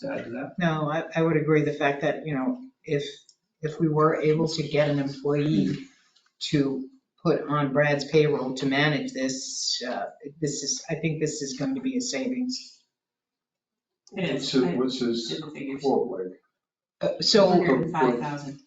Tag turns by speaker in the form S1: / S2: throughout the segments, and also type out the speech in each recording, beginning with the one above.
S1: to add to that?
S2: No, I, I would agree the fact that, you know, if, if we were able to get an employee to put on Brad's payroll to manage this, uh, this is, I think this is going to be a savings.
S3: It is.
S1: So
S3: I
S1: what's his
S3: did the figures.
S1: quote like?
S2: Uh, So,
S3: Hundred and five thousand.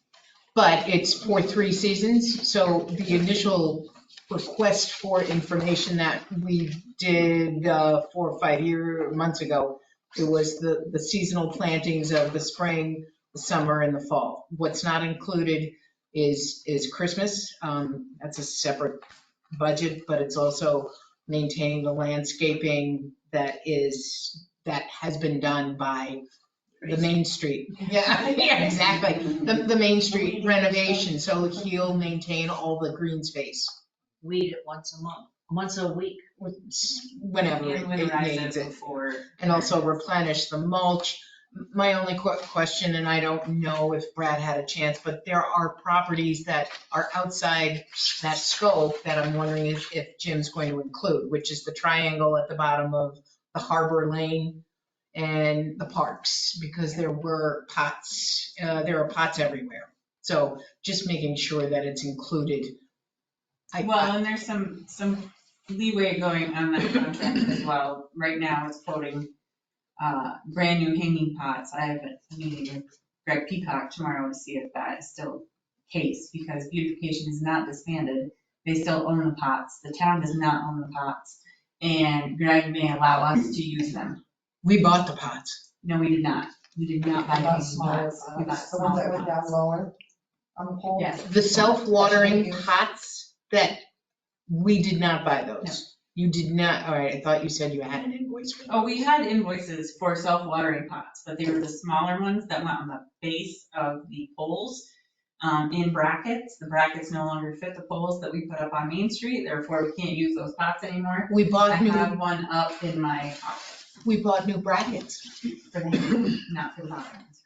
S2: but it's for three seasons, so the initial request for information that we did uh, four or five year, months ago, it was the, the seasonal plantings of the spring, the summer, and the fall. What's not included is, is Christmas, um, that's a separate budget, but it's also maintaining the landscaping that is, that has been done by the main street. Yeah, yeah, exactly the, the Main Street renovation, so he'll maintain all the green space
S4: weed it once a month, once a week.
S2: whenever it
S3: And
S2: it
S3: winterize
S2: needs
S3: it
S2: it.
S3: before.
S2: And also replenish the mulch. My only que- question, and I don't know if Brad had a chance, but there are properties that are outside that scope that I'm wondering if, if Jim's going to include, which is the triangle at the bottom of the Harbor Lane and the parks, because there were pots, uh, there are pots everywhere. So just making sure that it's included. I-
S3: Well, and there's some, some leeway going on that contract as well. Right now, it's quoting uh, brand new hanging pots. I have a meeting with Greg Peacock tomorrow to see if that is still the case, because beautification is not disbanded. They still own the pots. The town does not own the pots, and Greg may allow us to use them.
S2: We bought the pots.
S3: No, we did not. We did not buy
S5: I got
S3: hanging
S5: smaller
S3: pots. We bought
S5: pots, the ones uh, that
S3: smaller
S5: went down
S3: pots.
S5: lower on the pole.
S3: Yes.
S2: The self-watering pots that, we did not buy those. You did not, all right, I thought you said you had an invoice for
S3: Oh,
S2: those.
S3: we had invoices for self-watering pots, but they were the smaller ones that went on the base of the poles um, in brackets. The brackets no longer fit the poles that we put up on Main Street, therefore we can't use those pots anymore.
S2: We
S3: I
S2: bought new,
S3: have one up in my office
S2: we bought new brackets.
S3: for the, not for the bottom ones.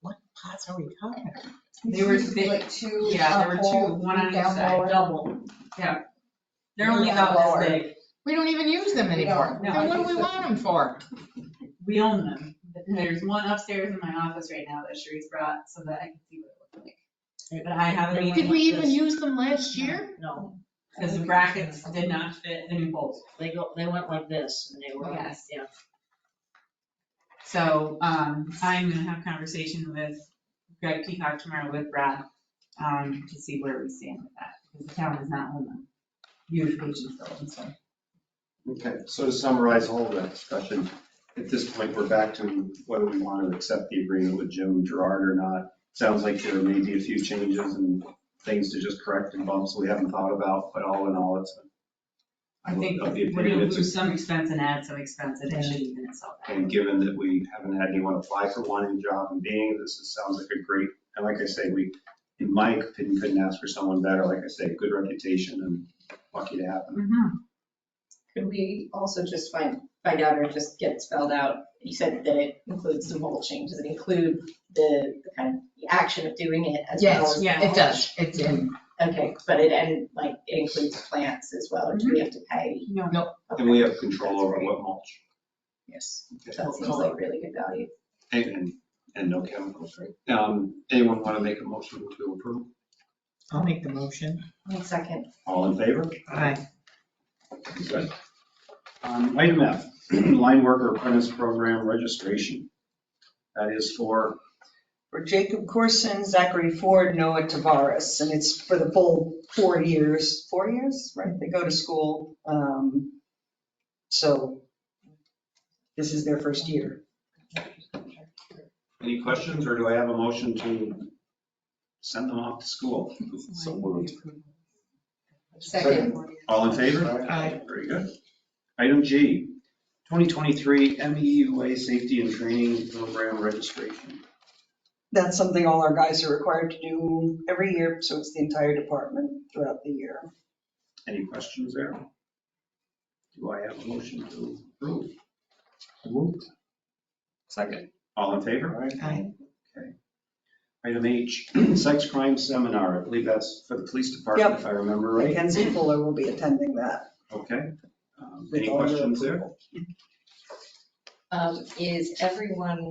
S2: What pots are we talking about?
S3: They were
S5: Used to be
S3: big.
S5: Like two.
S3: Yeah, there
S5: uh,
S3: were two,
S5: pole,
S3: one on each
S5: down
S3: side.
S5: lower.
S4: Double.
S3: They're only about this big.
S2: We don't even use them anymore.
S3: No, no,
S2: Then what do
S5: I
S2: we
S5: think
S2: want them for?
S3: We own them. There's one upstairs in my office right now that Sharice brought so that I can see what it looked like. But I have a meeting
S2: Did we even use them last year?
S4: No,
S3: because the brackets did not fit the new poles.
S4: they go, they went like this and they were,
S3: Yes.
S4: yeah.
S3: So, um, I'm gonna have a conversation with Greg Peacock tomorrow with Brad, um, to see where we stand with that, because the town does not own them. Beautification still owns them.
S1: Okay, so to summarize all of that discussion, at this point, we're back to whether we want to accept the agreement with Jim Gerard or not. Sounds like there may be a few changes and things to just correct and bumps we haven't thought about, but all in all, it's.
S3: I think
S1: of the
S3: we're
S1: opinion
S3: gonna
S1: it's a-
S3: lose some expense and add some expense, and it should even itself out.
S1: And given that we haven't had anyone apply for one in job and being, this is, sounds like a great, and like I say, we, in my opinion, couldn't ask for someone better. Like I say, good reputation and lucky to have them.
S3: Mhm.
S6: Could we also just find, find out or just get spelled out? You said that it includes the mulching. Does it include the the kind of, the action of doing it as well?
S2: Yes,
S6: as the
S3: yeah,
S2: It does, it's in.
S6: mulch? Okay, but it, and like, it includes plants as well, or do
S5: Mm-hmm.
S6: we have to pay?
S3: No,
S1: And we have control over what mulch
S2: Yes.
S6: That seems like really good value.
S1: and, and, and no chemicals, right? Um, anyone want to make a motion to approve?
S2: I'll make the motion.
S6: One second.
S1: All in favor?
S2: Aye.
S1: Good. Um, item F, line worker apprentice program registration. That is for
S5: For Jacob Corson, Zachary Ford, Noah Tavares, and it's for the full four years, four years, right? They go to school. um, So this is their first year.
S1: Any questions, or do I have a motion to send them off to school? So moved.
S6: Second.
S1: All in favor?
S2: Aye.
S1: Very good. Item G, 2023 MEUA E Safety and Training Program Registration.
S5: That's something all our guys are required to do every year, so it's the entire department throughout the year.
S1: Any questions there? Do I have a motion to approve? Second. All in favor?
S2: Aye.
S1: Item H, sex crime seminar. I believe that's for the police department,
S5: Yep.
S1: if I remember right.
S5: Mackenzie Fuller will be attending that.
S1: Okay. Um,
S5: with
S1: Any
S5: all your
S1: questions there?
S5: approval.
S6: um, is everyone